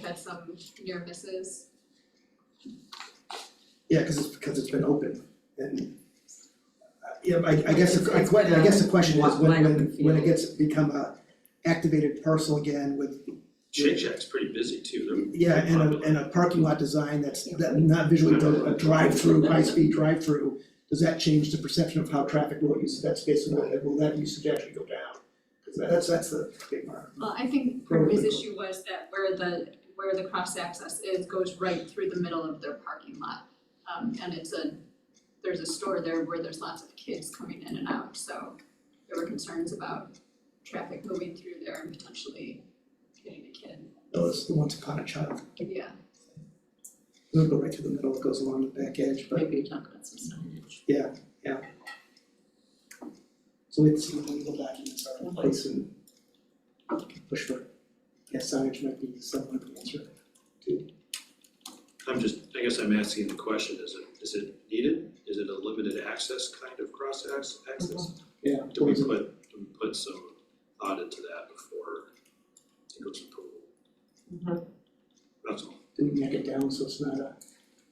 had some near misses. Yeah, cause it's, because it's been open and. uh, Yeah, I I guess, the- I que- I guess the question is when when when it gets become a activated parcel again with. Shake Shack's pretty busy too, Yeah, and a and a parking lot design that's that not visually, built, a drive-through, high-speed drive-through. Does that change the perception of how traffic will use that space and will will that usage actually go down? Cause that's that's the big part. Well, I think part of his issue was that where the, where the cross access is goes right through the middle of their parking lot. Um, and it's a, there's a store there where there's lots of kids coming in and out, so there were concerns about traffic moving through there and potentially hitting a kid, Those, the ones upon a child, yeah, it'll go right through the middle, it goes along the back edge, but maybe talk about some stuff. So it's the legal documents are in place and push for, yeah, signage might be somewhat of an answer. I'm just, I guess I'm asking the question, is it, is it needed? Is it a limited access kind of cross ax- access? Yeah. Do we towards it. put, do we put some thought into that before it goes approval? That's all, Didn't neck it down, so it's not a,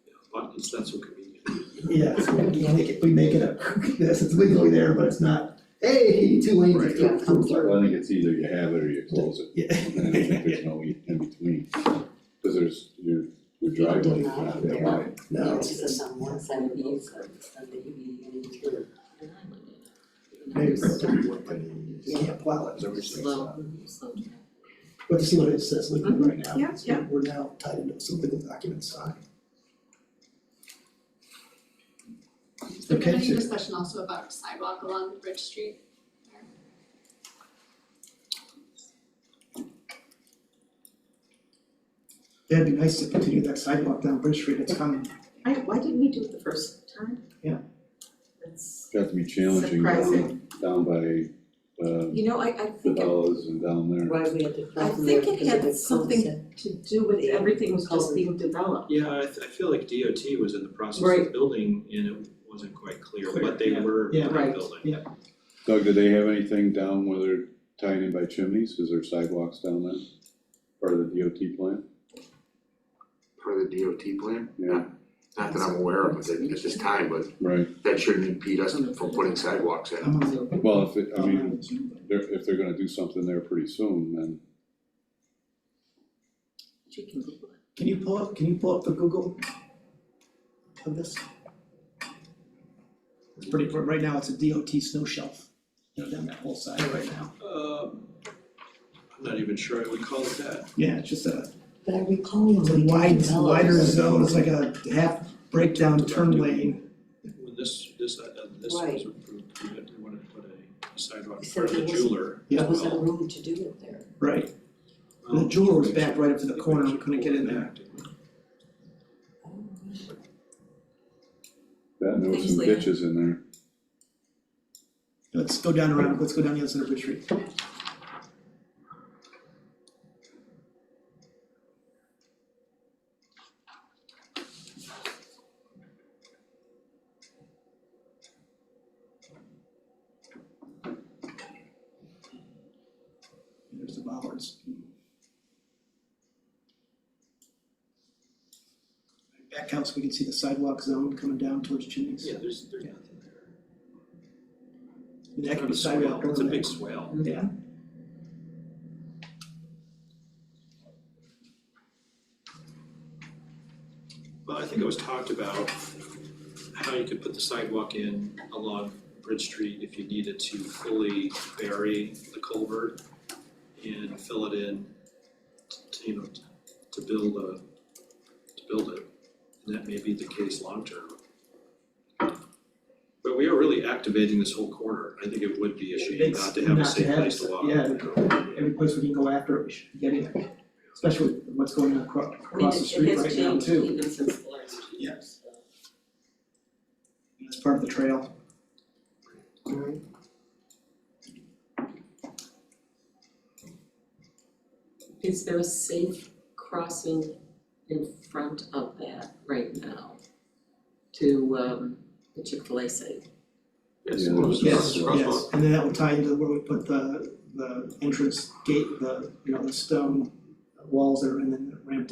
yeah, but it's not so convenient. yeah, it's, we make it, we make it a, yes, it's legally there, but it's not, hey, two lanes. it's Right. not from there. Well, I think it's either you have it or you close it, Yeah. and I think there's no e, in between, cause there's, your, your driveway is not that wide. No, It's it's, just on one side of the east, side, it's on the east, and it's here. maybe it's not worth it. you can't plow it. Slow. But to see what it says legally right now, Mm-hmm. Yeah, so we're now tied into some legal documents signed. Has there been Okay, any so- discussion also about sidewalk along Bridge Street? That'd be nice to continue that sidewalk down Bridge Street, it's coming. I, why didn't we do it the first time? Yeah. It's That's, Got to be challenging down, Surprising. down by, uh, you know, I, I the think it dollars and down there. Why we had to I close them think there it because had of the something- concept. to do with, everything was just being developed. Yeah, I, th- I feel like DOT was in the process of Right. building and it wasn't quite clear, Clear, but they yeah. were Yeah. not Right. building. Doug, do they have anything down where they're tying in by chimneys, is there sidewalks down there? Part of the DOT plan? part of the DOT plan? Yeah, Not that I'm aware of at, at this time, but right, that shouldn't impede us from putting sidewalks in. I'm on well, if, it- I mean, the. they're, if they're gonna do something there pretty soon, then, She can Google it. Can you pull up, can you pull up the Google of this? It's pretty, right now, it's a DOT snow shelf, you know, down that whole side right now. Um, I'm not even sure I would call it that. Yeah, it's just a, But I recall when it's a we wide, developed- wider zone, it's like a half breakdown turn lane. When this, this, uh, uh, this was Right. approved, we had- we wanted to put a sidewalk Except for the there wasn't- jeweler Um, as Yeah. There well. wasn't room to do it there. Right. Well, The jeweler was we back should- right up to the I think corner, we should couldn't pull get in it there. back, didn't we? that, and there was Things some like that. ditches in there. Let's go down around, let's go down the other side of Bridge Street. There's the bollards. Back out so we can see the sidewalk zone coming down towards chimneys. Yeah, there's, there's nothing there. And That could be It's a swale. sidewalk It's a overlay. big swale. Yeah. Well, I think it was talked about how you could put the sidewalk in along Bridge Street if you needed to fully bury the culvert and fill it in, to, you know, to- to build a, to build it. And that may be the case long term. But we are really activating this whole corner. I think it would be a shame It's not to have a not safe to have place it, to walk. Yeah, every place we can go after it, we should get in, especially with what's going on across, across the street right now I mean, it- it has too. changed even since the last few Yeah. years, so. It's part of the trail. Is there a safe crossing in front of that right now? To um the Chick-fil-A site? Yes, Yeah. it was- Yes, it was- yes, and then that will tie into where we put the, the entrance gate, the, you know, the stone walls that are in the ramp